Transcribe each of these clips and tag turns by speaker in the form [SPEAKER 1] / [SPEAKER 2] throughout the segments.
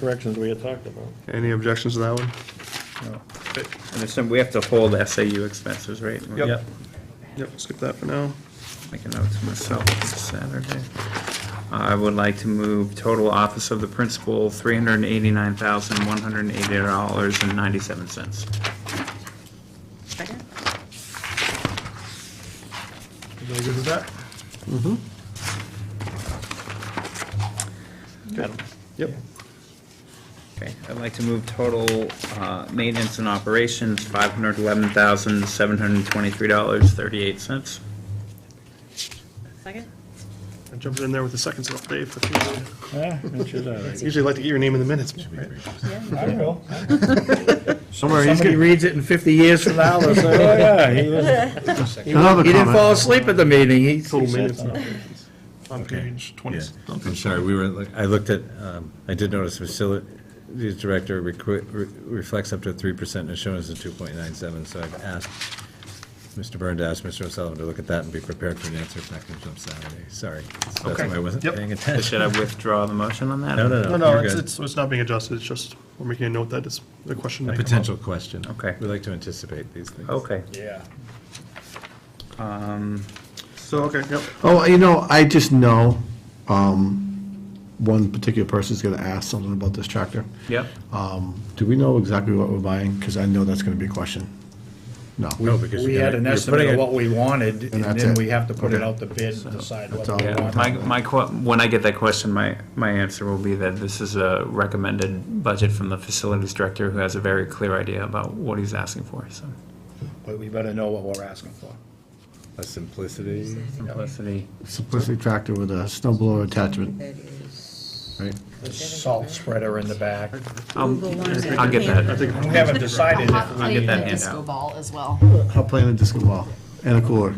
[SPEAKER 1] corrections we had talked about.
[SPEAKER 2] Any objections to that one?
[SPEAKER 3] And it's, some- we have to hold SAU expenses, right?
[SPEAKER 2] Yep. Yep, skip that for now.
[SPEAKER 3] Make a note to myself, it's Saturday. I would like to move total office of the principal, three hundred and eighty-nine thousand, one hundred and eighty dollars and ninety-seven cents.
[SPEAKER 4] Second?
[SPEAKER 2] Everybody good with that? Mm-hmm. Yep.
[SPEAKER 3] Okay, I'd like to move total, uh, maintenance and operations, five hundred eleven thousand, seven hundred and twenty-three dollars, thirty-eight cents.
[SPEAKER 4] Second?
[SPEAKER 2] I jumped in there with the seconds off, Dave. That's usually-
[SPEAKER 1] Yeah, that's just all right.
[SPEAKER 2] Usually like to get your name in the minutes. right?
[SPEAKER 1] I will.
[SPEAKER 5] Somewhere
[SPEAKER 6] Somebody
[SPEAKER 5] he's gonna,
[SPEAKER 6] reads it in 50 years from now, they'll
[SPEAKER 1] Oh,
[SPEAKER 6] say,
[SPEAKER 1] yeah, he was,
[SPEAKER 6] he
[SPEAKER 5] Another
[SPEAKER 6] didn't
[SPEAKER 5] comment.
[SPEAKER 6] fall asleep at the meeting, he,
[SPEAKER 2] Total minutes and operations. On page twenty.
[SPEAKER 5] yeah,
[SPEAKER 2] something.
[SPEAKER 5] I'm sorry, we were, like- I looked at, um, I did notice facilities director requ- re- reflects up to three percent and shown as a two point nine seven, so I've asked Mr. Byrne to ask Mr. O'Sullivan to look at that and be prepared for an answer if that comes up Saturday, sorry. So That's
[SPEAKER 2] Okay.
[SPEAKER 5] why I wasn't
[SPEAKER 2] Yep.
[SPEAKER 5] paying
[SPEAKER 3] Should
[SPEAKER 5] attention.
[SPEAKER 3] I withdraw the motion on that?
[SPEAKER 5] No, no,
[SPEAKER 2] No,
[SPEAKER 5] no,
[SPEAKER 2] no,
[SPEAKER 5] you're
[SPEAKER 2] it's,
[SPEAKER 5] good.
[SPEAKER 2] it's, it's not being adjusted, it's just, we're making a note that it's a question.
[SPEAKER 5] A
[SPEAKER 2] may come up.
[SPEAKER 5] potential question.
[SPEAKER 3] Okay.
[SPEAKER 5] We like to anticipate these things.
[SPEAKER 3] Okay.
[SPEAKER 1] yeah.
[SPEAKER 3] Um,
[SPEAKER 2] So, okay, yep.
[SPEAKER 7] Oh, you know, I just know um, one particular person's going to ask something about this tractor.
[SPEAKER 3] yep,
[SPEAKER 7] Um, Do we know exactly what we're buying? Because I know that's going to be a question. No.
[SPEAKER 5] No, because
[SPEAKER 6] we
[SPEAKER 5] you're
[SPEAKER 6] had
[SPEAKER 5] gonna-
[SPEAKER 6] an
[SPEAKER 5] you're
[SPEAKER 6] estimate
[SPEAKER 5] putting
[SPEAKER 6] of
[SPEAKER 5] it-
[SPEAKER 6] what we wanted, and
[SPEAKER 7] that's
[SPEAKER 6] then
[SPEAKER 7] it.
[SPEAKER 6] we have to put it
[SPEAKER 7] Okay.
[SPEAKER 6] out the bid and decide
[SPEAKER 7] That's
[SPEAKER 6] whether we
[SPEAKER 7] all.
[SPEAKER 6] want
[SPEAKER 3] My,
[SPEAKER 6] it.
[SPEAKER 3] my, que- when I get that question, my, my answer will be that this is a recommended budget from the facilities director who has a very clear idea about what he's asking for, so.
[SPEAKER 6] But we better know what we're asking for.
[SPEAKER 5] A simplicity.
[SPEAKER 3] Simplicity.
[SPEAKER 7] Simplicity tractor with a snow blower attachment,
[SPEAKER 4] That is.
[SPEAKER 7] right?
[SPEAKER 6] The salt spreader in the back.
[SPEAKER 3] I'll,
[SPEAKER 4] Google one that
[SPEAKER 3] I'll get
[SPEAKER 4] came-
[SPEAKER 3] that.
[SPEAKER 2] think-
[SPEAKER 6] We haven't decided
[SPEAKER 8] Hot
[SPEAKER 6] if,
[SPEAKER 3] I'll
[SPEAKER 8] plate
[SPEAKER 3] get
[SPEAKER 8] and
[SPEAKER 3] that
[SPEAKER 8] a
[SPEAKER 3] hand
[SPEAKER 8] disco
[SPEAKER 3] out.
[SPEAKER 8] ball as well.
[SPEAKER 7] Hot plate and a disco ball and a cooler.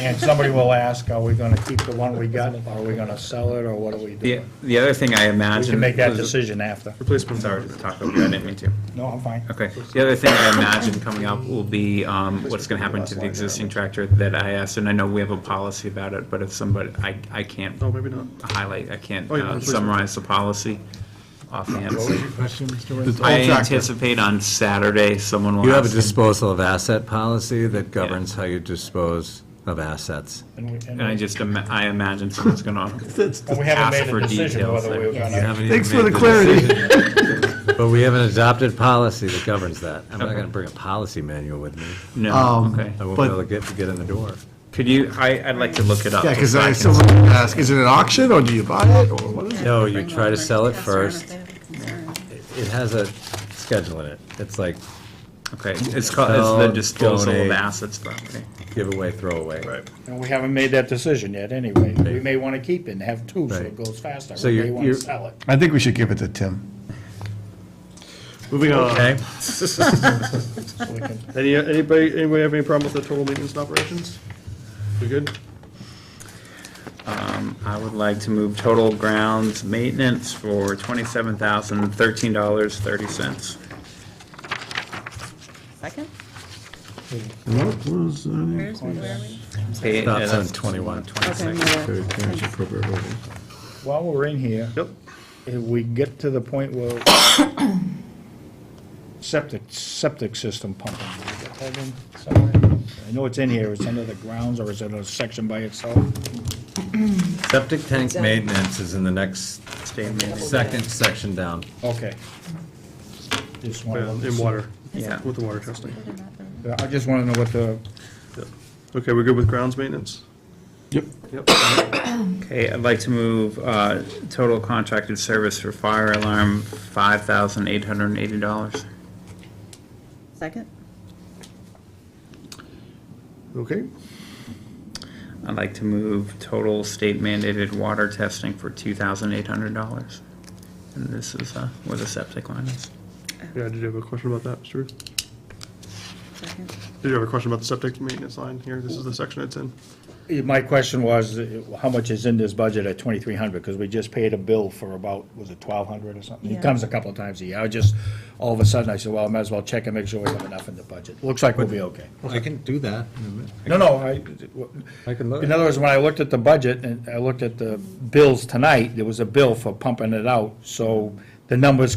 [SPEAKER 6] and somebody will ask, are we gonna keep the one we got, are we gonna sell it, or what are we
[SPEAKER 3] The,
[SPEAKER 6] doing?
[SPEAKER 3] the other thing I imagine.
[SPEAKER 6] We can make that
[SPEAKER 3] was-
[SPEAKER 6] decision after.
[SPEAKER 2] Replacement.
[SPEAKER 3] Sorry to talk over you, I didn't mean to.
[SPEAKER 6] No, I'm fine.
[SPEAKER 3] Okay, the other thing I imagine coming up will be, um, what's gonna happen to the existing tractor that I asked, and I know we have a policy about it, but if somebody, I, I can't
[SPEAKER 2] No, maybe not.
[SPEAKER 3] highlight, I can't
[SPEAKER 2] Oh, yeah,
[SPEAKER 3] uh,
[SPEAKER 2] please.
[SPEAKER 3] summarize the policy offhand.
[SPEAKER 5] Question, Mr.
[SPEAKER 7] It's all
[SPEAKER 3] I
[SPEAKER 7] tractor.
[SPEAKER 3] anticipate on Saturday, someone will
[SPEAKER 5] You have a
[SPEAKER 3] ask. him-
[SPEAKER 5] disposal of asset policy that governs how you dispose of assets.
[SPEAKER 6] And we-
[SPEAKER 3] And I
[SPEAKER 6] and
[SPEAKER 3] just, ima- I imagine someone's gonna,
[SPEAKER 6] and we haven't
[SPEAKER 3] ask
[SPEAKER 6] made
[SPEAKER 3] for
[SPEAKER 6] a decision
[SPEAKER 3] details
[SPEAKER 6] whether
[SPEAKER 3] there.
[SPEAKER 6] we were gonna.
[SPEAKER 5] Thanks for the clarity. But we have an adopted policy that governs that. I'm not gonna bring a policy manual with me.
[SPEAKER 3] no,
[SPEAKER 7] Um,
[SPEAKER 3] okay.
[SPEAKER 5] I won't be
[SPEAKER 7] But-
[SPEAKER 5] able to get, to get in the door.
[SPEAKER 3] Could you, I, I'd like to look it up.
[SPEAKER 7] Yeah, because
[SPEAKER 3] so
[SPEAKER 7] I,
[SPEAKER 3] can-
[SPEAKER 7] someone would ask, is it an auction or do you buy it or what is it?
[SPEAKER 5] No, you try to sell it
[SPEAKER 4] Pass around if
[SPEAKER 5] first.
[SPEAKER 4] they have a concern.
[SPEAKER 5] It has a schedule in it. It's like
[SPEAKER 3] Okay, it's called, it's the
[SPEAKER 5] Sell,
[SPEAKER 3] disposal of
[SPEAKER 5] donate.
[SPEAKER 3] assets, but, okay.
[SPEAKER 5] giveaway, throwaway. Right.
[SPEAKER 6] And we haven't made that decision yet anyway. We may want to keep it and have two, so it
[SPEAKER 5] Right.
[SPEAKER 6] goes faster.
[SPEAKER 5] So
[SPEAKER 6] We
[SPEAKER 5] you're-
[SPEAKER 6] may want to
[SPEAKER 5] you're-
[SPEAKER 6] sell it.
[SPEAKER 7] I think we should give it to Tim.
[SPEAKER 2] Moving on.
[SPEAKER 5] Okay?
[SPEAKER 2] Any, anybody, anybody have any problem with the total maintenance and operations? We good?
[SPEAKER 3] I would like to move total grounds maintenance for twenty-seven thousand, thirteen dollars, thirty cents.
[SPEAKER 4] Second?
[SPEAKER 7] What was that?
[SPEAKER 4] Where's, where are we?
[SPEAKER 5] That's on 21.
[SPEAKER 4] Okay,
[SPEAKER 3] Twenty-six.
[SPEAKER 4] no,
[SPEAKER 7] Very parents appropriate voting.
[SPEAKER 6] While we're in here,
[SPEAKER 2] Yep.
[SPEAKER 6] if we get to the point where septic, septic system pumping, did we get that in somewhere? I know it's in here, it's under the grounds, or is it a section by itself?
[SPEAKER 5] Septic tank maintenance is in the next,
[SPEAKER 3] Statement,
[SPEAKER 5] second section down.
[SPEAKER 6] Okay. Just want
[SPEAKER 2] In
[SPEAKER 6] to,
[SPEAKER 2] water,
[SPEAKER 3] yeah.
[SPEAKER 2] with the water testing.
[SPEAKER 6] I just want to know what the,
[SPEAKER 2] Okay, we're good with grounds maintenance? Yep. Yep.
[SPEAKER 3] Okay, I'd like to move, uh, total contracted service for fire alarm, five thousand, eight hundred and eighty dollars.
[SPEAKER 4] Second?
[SPEAKER 2] Okay,
[SPEAKER 3] I'd like to move total state mandated water testing for two thousand, eight hundred dollars. And this is, uh, where the septic line is.
[SPEAKER 2] yeah, did you have a question about that, Mr. Ruth?
[SPEAKER 4] Second.
[SPEAKER 2] Did you have a question about the septic maintenance line here? This is the section it's in.
[SPEAKER 6] my question was, uh, how much is in this budget at 2,300? Because we just paid a bill for about, was it 1,200 or something? He
[SPEAKER 4] Yeah.
[SPEAKER 6] comes a couple of times a year. I just, all of a sudden, I said, well, I might as well check and make sure we have enough in the budget. Looks like we'll be okay.
[SPEAKER 5] I can do that.
[SPEAKER 6] No, no, I,
[SPEAKER 5] I can look.
[SPEAKER 6] in other words, when I looked at the budget and I looked at the bills tonight, there was a bill for pumping it out, so the numbers